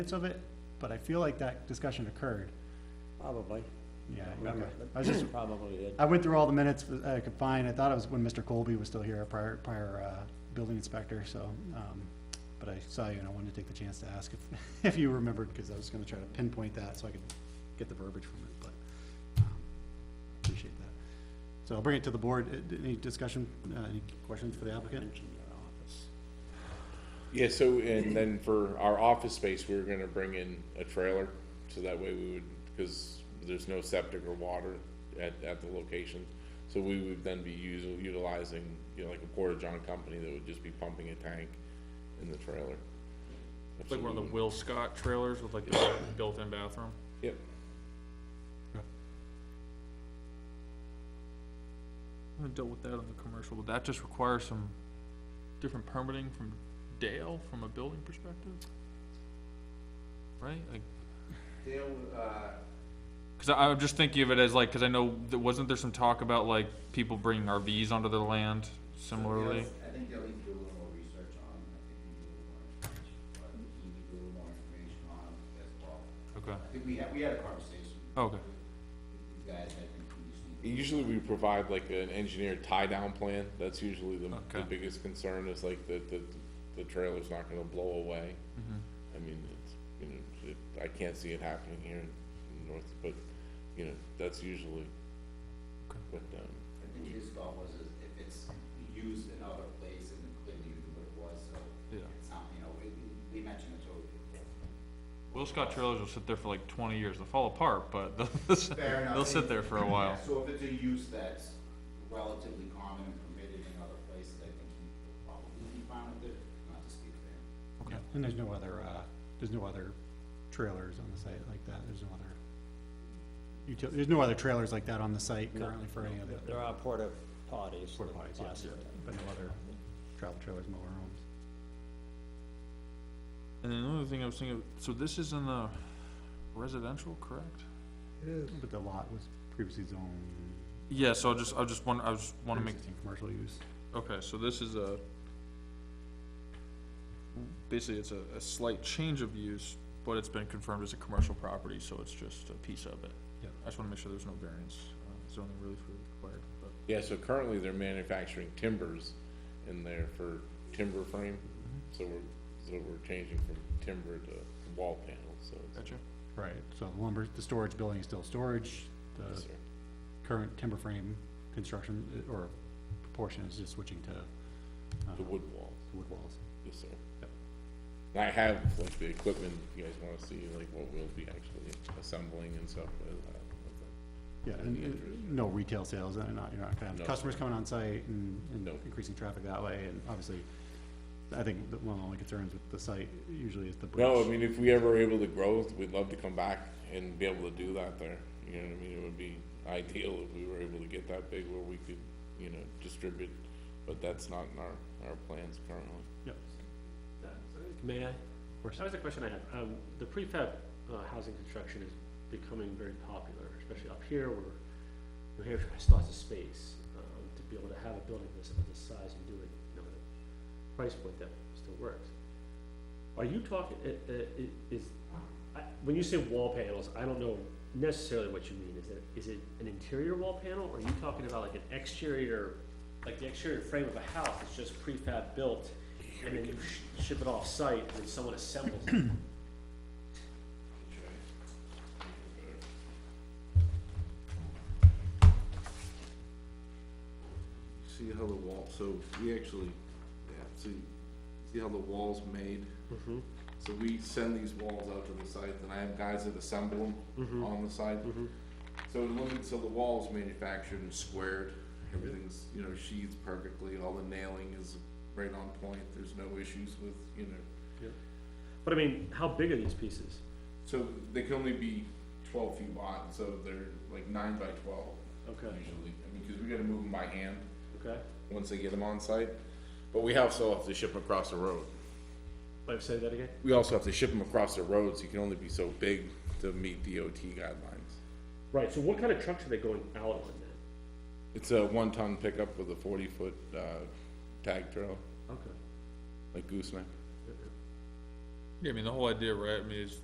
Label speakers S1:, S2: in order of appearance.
S1: minutes of it, but I feel like that discussion occurred.
S2: Probably.
S1: Yeah,
S2: Don't
S1: okay.
S2: remember,
S1: I
S2: but
S1: was just,
S2: Probably did.
S1: I went through all the minutes I could find. I thought it was when Mr. Colby was still here, our prior, prior, uh, building inspector, so, um, but I saw you and I wanted to take the chance to ask if, if you remembered, because I was gonna try to pinpoint that so I could get the verbiage from it, but, um, appreciate that. So I'll bring it to the board. Uh, Any discussion, uh, any questions for the applicant?
S2: Mentioned your office.
S3: Yeah, so, and then for our office space, we were gonna bring in a trailer, so that way we would, because there's no septic or water at, at the location. So we would then be using, utilizing, you know, like a porta-john company that would just be pumping a tank in the trailer.
S4: Like one of the Will Scott trailers with like the built-in bathroom.
S3: Yep,
S4: I dealt with that on the commercial, but that just requires some different permitting from Dale from a building perspective? Right, like,
S5: Dale, uh,
S4: cause I, I'm just thinking of it as like, cause I know, there- wasn't there some talk about like people bringing RVs onto their land similarly?
S5: Dale's- I think Dale needs to do a little more research on, I think we need a little more information, but he needs to do a little more information on as well.
S4: Okay,
S5: I think we had, we had a conversation
S4: okay,
S5: with these guys, I think we just need to.
S3: usually we provide like an engineered tie-down plan, that's usually the, the
S4: Okay.
S3: biggest concern is like that, the the trailer's not gonna blow away.
S4: Mm-hmm.
S3: I mean, it's, you know, it, I can't see it happening here in in North, but, you know, that's usually
S4: Okay.
S3: what, um,
S5: I think his thought was is if it's used in other place and clearly what it was, so
S4: yeah.
S5: it's not, you know, we, we mentioned it to.
S4: Will Scott trailers will sit there for like twenty years, they'll fall apart, but they'll,
S5: Fair enough.
S4: they'll sit there for a while.
S5: So if it's a use that's relatively common and permitted in other places, I think he'd probably be fine with it, not to speak for him.
S4: Okay.
S1: And there's no other, uh, there's no other trailers on the site like that. There's no other util, there's no other trailers like that on the site currently for any of the.
S2: There are porta potties.
S1: Porta potties, yes, but no other travel trailers, motor homes.
S4: And then another thing I was thinking, of- so this is in the residential, correct?
S1: But the lot was previously zoned
S4: Yeah, so I just, I just want, I just
S1: for
S4: wanna make,
S1: existing commercial use.
S4: okay, so this is a, basically it's a, a slight change of use, but it's been confirmed as a commercial property, so it's just a piece of it.
S1: Yep.
S4: I just wanna make sure there's no variance, uh, zoning relief required, but.
S3: yeah, so currently they're manufacturing timbers in there for timber frame, so we're, so we're changing from timber to wall panels, so. it's-
S4: Gotcha.
S1: Right, so the lumber, the storage building is still storage,
S3: yes,
S1: the
S3: sir.
S1: current timber frame construction uh, or proportion is just switching to uh,
S3: The wood wall,
S1: wood walls.
S3: yes, sir.
S1: Yep.
S3: And I have like the equipment, if you guys wanna see like what we'll be actually assembling and stuff uh, with that.
S1: Yeah, and uh, no retail sales, and not, you're not gonna
S3: No.
S1: have customers coming on site and, and
S3: No.
S1: increasing traffic that way, and obviously, I think that one of the only concerns with the site usually is the bridge.
S3: No, I mean, if we ever are able to grow, we'd love to come back and be able to do that there. You know what I mean? It would be ideal if we were able to get that big where we could, you know, distribute, but that's not in our, our plans currently.
S1: Yep,
S6: May I?
S1: of course.
S6: That was a question I have. Um, the prefab, uh, housing construction is becoming very popular, especially up here where New Hampshire has lots of space, um, to be able to have a building this, of this size and do it, you know, at a price point that still works. Are you talking, i- i- i- is, I, when you say wall panels, I don't know necessarily what you mean. Is it, is it an interior wall panel or are you talking about like an exterior, like the exterior frame of a house that's just prefab built? And then you sh- ship it off-site and then someone assembles it?
S3: See how the wall, so we actually, yeah, see, see how the wall's made? So we send these walls out to the site, and I have guys that assemble them on the side. So it limits, so the wall's manufactured and squared, everything's, you know, sheathed perfectly, all the nailing is right on point, there's no issues with, you know.
S6: But I mean, how big are these pieces?
S3: So they can only be twelve feet wide, so they're like nine by twelve
S6: Okay,
S3: usually, I mean, cause we gotta move them by hand
S6: okay.
S3: once they get them on site. But we also have to ship them across the road.
S6: Wait, say that again?
S3: We also have to ship them across the roads, you can only be so big to meet DOT guidelines.
S6: Right, so what kind of trucks are they going out on then?
S3: It's a one-ton pickup with a forty-foot, uh, tag trailer,
S6: Okay.
S3: like gooseneck.
S4: Yeah, I mean, the whole idea, right, I mean, is